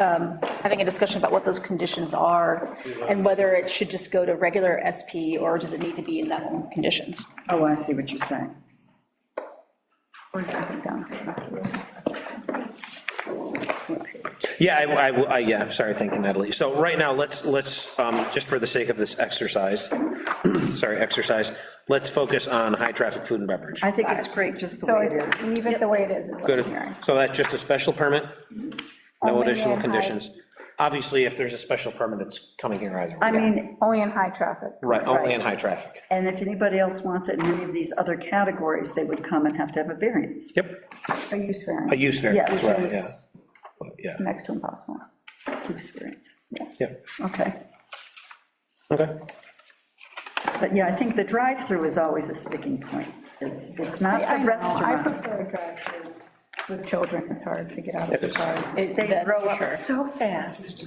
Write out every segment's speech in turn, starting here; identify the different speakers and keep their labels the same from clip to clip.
Speaker 1: um, having a discussion about what those conditions are and whether it should just go to regular SP or does it need to be in that one with conditions?
Speaker 2: Oh, I see what you're saying.
Speaker 1: Or does it come down to-
Speaker 3: Yeah, I, I- I- yeah, I'm sorry, thank you, Natalie. So right now, let's, let's, um, just for the sake of this exercise, sorry, exercise, let's focus on high-traffic food and beverage.
Speaker 2: I think it's great just the
Speaker 4: So
Speaker 2: way it is.
Speaker 4: it's- leave it the way it is. in the
Speaker 3: Go to-
Speaker 4: hearing.
Speaker 3: So that's just a special permit? No
Speaker 4: Only
Speaker 3: additional
Speaker 4: in high-
Speaker 3: conditions? Obviously, if there's a special permit, it's coming here either.
Speaker 2: I
Speaker 3: way.
Speaker 2: mean,
Speaker 4: Only in high traffic.
Speaker 3: Right, only in high traffic.
Speaker 2: and if anybody else wants it in any of these other categories, they would come and have to have a variance.
Speaker 3: Yep,
Speaker 4: A use
Speaker 3: a
Speaker 4: variance,
Speaker 3: use variance,
Speaker 2: Yes.
Speaker 3: right, yeah. Yeah,
Speaker 4: next to impossible.
Speaker 2: Experience, yeah,
Speaker 3: yeah,
Speaker 2: okay.
Speaker 3: okay.
Speaker 2: But yeah, I think the drive-through is always a sticking point. It's, it's not
Speaker 4: I
Speaker 2: the
Speaker 4: know, I
Speaker 2: restaurant.
Speaker 4: prefer a drive-through with children, it's hard to get out
Speaker 3: It
Speaker 4: of the
Speaker 3: is.
Speaker 4: car.
Speaker 1: It-
Speaker 2: They
Speaker 1: that's
Speaker 2: grow
Speaker 1: for
Speaker 2: up
Speaker 1: sure.
Speaker 2: so fast.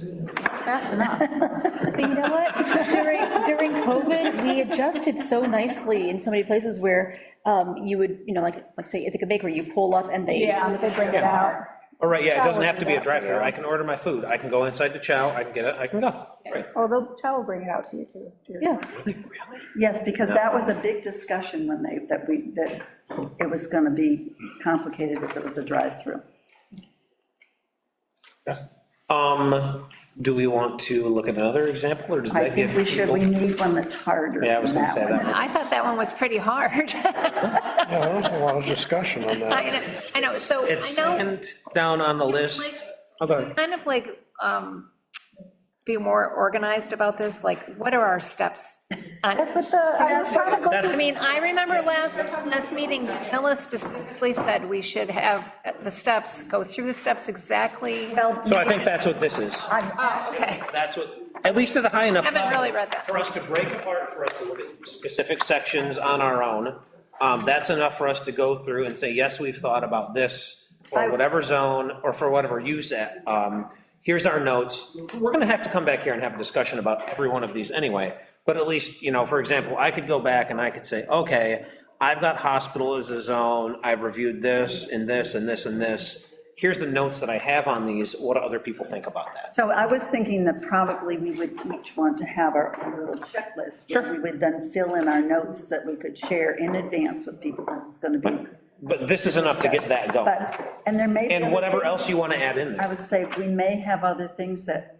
Speaker 4: Fast enough.
Speaker 1: But you know what? During, during COVID, we adjusted so nicely in so many places where um, you would, you know, like, like say Ithaca Bakery, you pull up and they.
Speaker 4: Yeah, they bring it out.
Speaker 3: All right, yeah, it doesn't
Speaker 4: Chow
Speaker 3: have to be a
Speaker 4: would be better.
Speaker 3: drive-through. I can order my food. I can go inside the chow, I can get it, I can go. Right.
Speaker 4: Oh, the child will bring it out to you too. to your-
Speaker 1: Yeah.
Speaker 2: Yes, because that was a big discussion when they, that we, that it was going to be complicated if it was a drive-through.
Speaker 3: Um, do we want to look at another example, or does
Speaker 2: I
Speaker 3: that give
Speaker 2: think we should,
Speaker 3: people?
Speaker 2: we need one that's harder
Speaker 3: Yeah, I was
Speaker 2: than
Speaker 3: gonna say that.
Speaker 5: I thought that one was pretty hard.
Speaker 6: Yeah, there was a lot of discussion on
Speaker 5: I
Speaker 6: that.
Speaker 5: know, I know, so
Speaker 3: It's Oh,
Speaker 5: I know,
Speaker 3: second down on the list. Okay.
Speaker 5: kind of like, um, be more organized about this, like, what are our steps? on-
Speaker 4: That's what the, I was trying to go
Speaker 3: That's-
Speaker 5: I mean, I remember last, last meeting, Camilla specifically said we should have the steps, go through the steps exactly.
Speaker 2: Well,
Speaker 3: So I think that's what this is.
Speaker 5: Oh, okay,
Speaker 3: That's what, at least at a high enough.
Speaker 5: haven't
Speaker 3: level
Speaker 5: really read that.
Speaker 3: For us to break apart, for us to look at specific sections on our own. Um, that's enough for us to go through and say, yes, we've thought about this,
Speaker 2: I-
Speaker 3: or whatever zone, or for whatever use at, um, here's our notes. We're gonna have to come back here and have a discussion about every one of these anyway, but at least, you know, for example, I could go back and I could say, okay, I've got hospital as a zone, I've reviewed this, and this, and this, and this. Here's the notes that I have on these, what do other people think about that?
Speaker 2: So I was thinking that probably we would each want to have our own little checklist. Sure. We would then fill in our notes that we could share in advance with people, when it's going to be,
Speaker 3: But this is enough to get that going.
Speaker 2: but, and there may be.
Speaker 3: And
Speaker 2: other
Speaker 3: whatever
Speaker 2: things-
Speaker 3: else you want to add in
Speaker 2: I
Speaker 3: there.
Speaker 2: would say we may have other things that,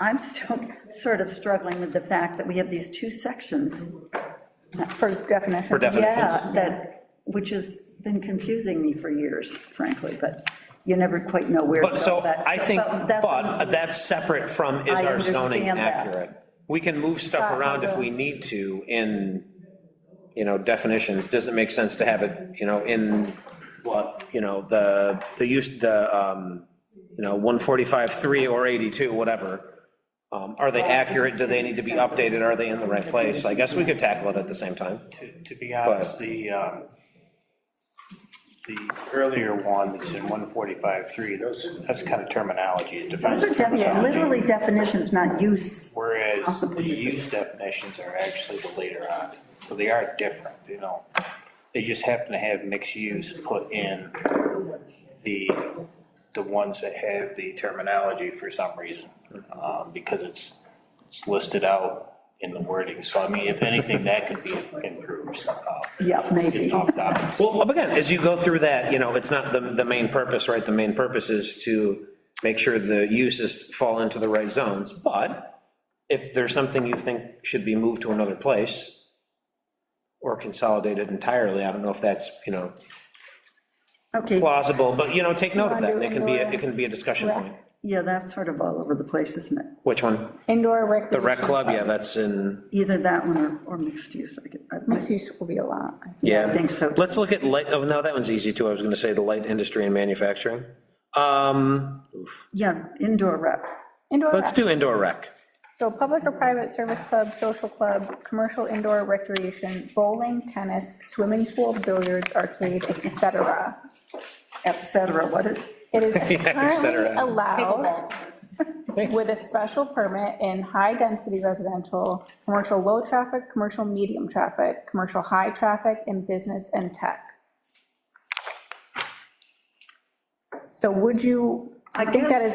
Speaker 2: I'm still sort of struggling with the fact that we have these two sections.
Speaker 4: for definition.
Speaker 3: For definition.
Speaker 2: Yeah, that, which has been confusing me for years, frankly, but you never quite know where to go.
Speaker 3: But so
Speaker 2: That's-
Speaker 3: I think,
Speaker 2: that's-
Speaker 3: but that's separate from is
Speaker 2: I
Speaker 3: our zoning
Speaker 2: understand that.
Speaker 3: accurate? We can move stuff around if we need to in, you know, definitions. Does it make sense to have it, you know, in what, you know, the, the use, the, um, you know, 145.3 or 82, whatever? Um, Are they accurate? Do they need to be updated? Are they in the right place? I guess we could tackle it at the same time.
Speaker 7: To to be honest, the, um, the earlier one that's in 145.3, those, that's kind of terminology. it depends
Speaker 2: Those are defi-
Speaker 7: terminology,
Speaker 2: literally definitions, not use.
Speaker 7: Whereas the
Speaker 2: possibilities.
Speaker 7: use definitions are actually the later on, so they are different, you know. They just happen to have mixed use put in the, the ones that have the terminology for some reason, um, because it's it's listed out in the wording. So I mean, if anything, that could be improved somehow.
Speaker 2: Yeah, maybe.
Speaker 7: Getting off topic.
Speaker 3: Well, up again, as you go through that, you know, it's not the, the main purpose, right? The main purpose is to make sure the uses fall into the right zones, but if there's something you think should be moved to another place or consolidated entirely, I don't know if that's, you know,
Speaker 2: Okay,
Speaker 3: plausible, but, you know, take note of that, and it can be, a- it can be a discussion point.
Speaker 2: yeah, that's sort of all over the place, isn't it?
Speaker 3: Which one?
Speaker 4: Indoor recreation.
Speaker 3: The rec club, yeah, that's in,
Speaker 2: Either that one or, or mixed use. I could- I-
Speaker 4: Mixed use will be a lot.
Speaker 3: yeah.
Speaker 2: I think so.
Speaker 3: Let's look at light, oh, no, that one's easy too, I was gonna say the light industry and manufacturing. Um,
Speaker 2: Yeah, indoor rec.
Speaker 4: Indoor
Speaker 3: let's
Speaker 4: rec,
Speaker 3: do indoor rec.
Speaker 4: so public or private service club, social club, commercial indoor recreation, bowling, tennis, swimming pool, billiards, arcade, et cetera.
Speaker 2: et cetera, what is,
Speaker 4: It is
Speaker 3: et
Speaker 4: currently
Speaker 3: cetera.
Speaker 4: allowed with a special permit in high-density residential, commercial low-traffic, commercial medium traffic, commercial high-traffic, and business and tech. So would you
Speaker 2: I
Speaker 4: think that
Speaker 2: guess-
Speaker 4: is